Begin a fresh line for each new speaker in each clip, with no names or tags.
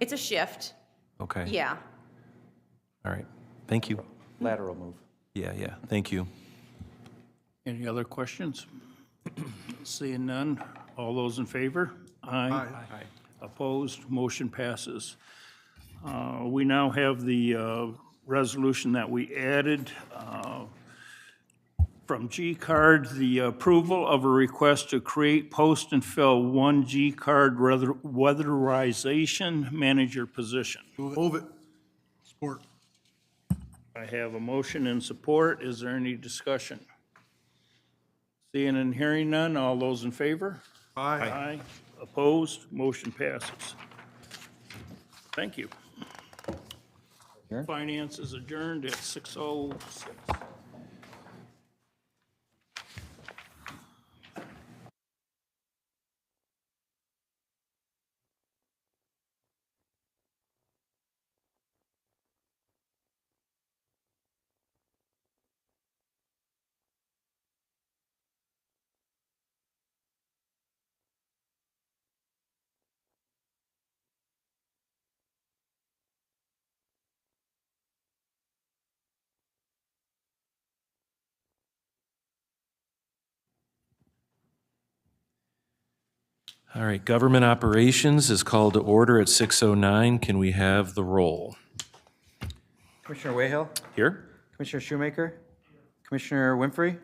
It's a shift,
Okay.
yeah.
All right. Thank you.
lateral move.
Yeah, yeah. Thank you.
Any other questions? Seeing none, all those in favor? Aye. Opposed, motion passes. Uh, We now have the uh, resolution that we added uh, from G-Card, the approval of a request to create, post, and fill one G-Card weather- weatherization manager position.
Move it. Support.
I have a motion and support. Is there any discussion? Seeing and hearing none, all those in favor?
Aye.
Aye. Opposed, motion passes. Thank you.
Adjourn.
Finance is adjourned at 6:06.
All right. Government operations is called to order at 6:09. Can we have the roll?
Commissioner Wayhill,
Here?
Commissioner Shoemaker, Commissioner Winfrey,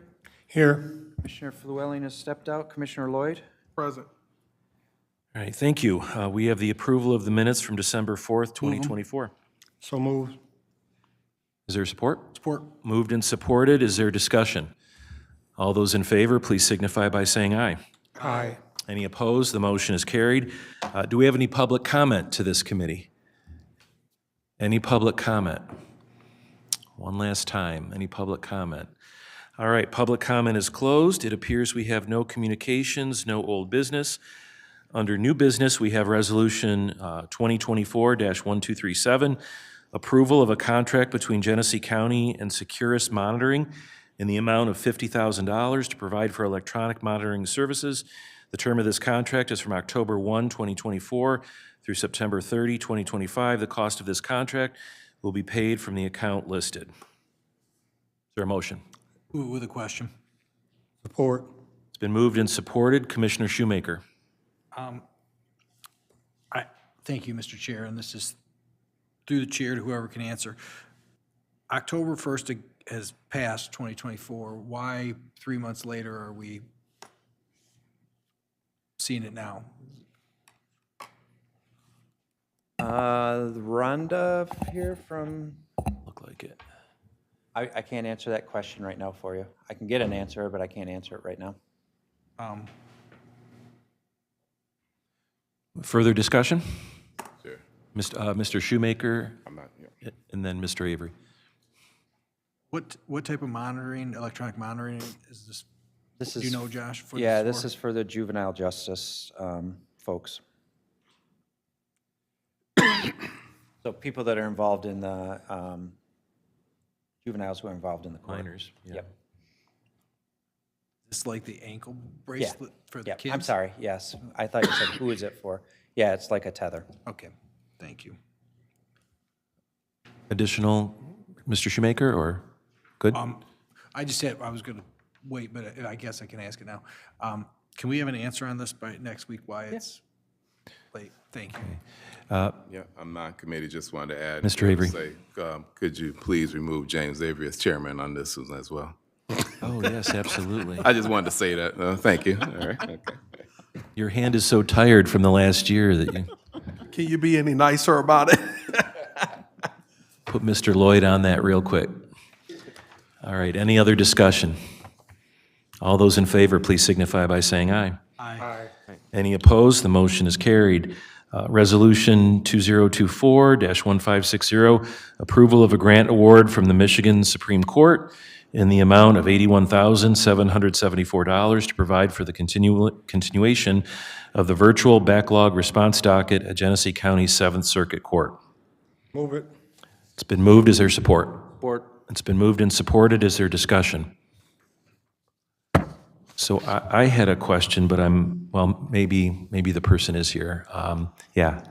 Here.
Commissioner Flewelling has stepped out, Commissioner Lloyd,
Present.
All right, thank you. Uh, We have the approval of the minutes from December 4th,
Mm-hmm.
2024.
So moved.
Is there support?
Support.
Moved and supported. Is there discussion? All those in favor, please signify by saying aye.
Aye.
Any opposed? The motion is carried. Uh, Do we have any public comment to this committee? Any public comment? One last time, any public comment? All right, public comment is closed. It appears we have no communications, no old business. Under new business, we have Resolution uh, 2024-1237, approval of a contract between Genesee County and Securus Monitoring in the amount of $50,000 to provide for electronic monitoring services. The term of this contract is from October 1, 2024 through September 30, 2025. The cost of this contract will be paid from the account listed. Is there a motion?
With a question. Support.
It's been moved and supported. Commissioner Shoemaker.
I, thank you, Mr. Chair, and this is through the chair to whoever can answer. October 1st has passed 2024. Why, three months later, are we seeing it now?
uh, Rhonda here from,
Look like it.
I, I can't answer that question right now for you. I can get an answer, but I can't answer it right now.
Um,
Further discussion? Mist- uh, Mr. Shoemaker? And then Mr. Avery.
What, what type of monitoring, electronic monitoring is this?
This
Do you
is-
know, Josh? what
Yeah,
it's
this
for?
is for the juvenile justice um, folks. So people that are involved in the, um, juveniles who are involved in the court.
Minors, yeah.
Yep.
It's like the ankle
Yeah.
bracelet for the
Yeah,
kids?
I'm sorry, yes. I thought you said, who is it for? Yeah, it's like a tether.
Okay, thank you.
Additional, Mr. Shoemaker, or, good?
Um,
Um, I just said, I was going to wait, but I- I guess I can ask it now. Um, Can we have an answer on this by next week, why it's late? Thank you.
Yeah, I'm not committed, just wanted to add.
Mr. Avery.
say, um, Could you please remove James Avery as chairman on this one as well?
Oh, yes, absolutely.
I just wanted to say that, uh, thank you, all right, okay.
Your hand is so tired from the last year that you
Can you be any nicer about it?
put Mr. Lloyd on that real quick. All right, any other discussion? All those in favor, please signify by saying aye.
Aye.
Any opposed? The motion is carried. Uh, Resolution 2024-1560, approval of a grant award from the Michigan Supreme Court in the amount of $81,774 to provide for the continu- continuation of the virtual backlog response docket at Genesee County Seventh Circuit Court.
Move it.
It's been moved. Is there support?
Board,
It's been moved and supported. Is there discussion? So I, I had a question, but I'm, well, maybe, maybe the person is here. Um, Yeah.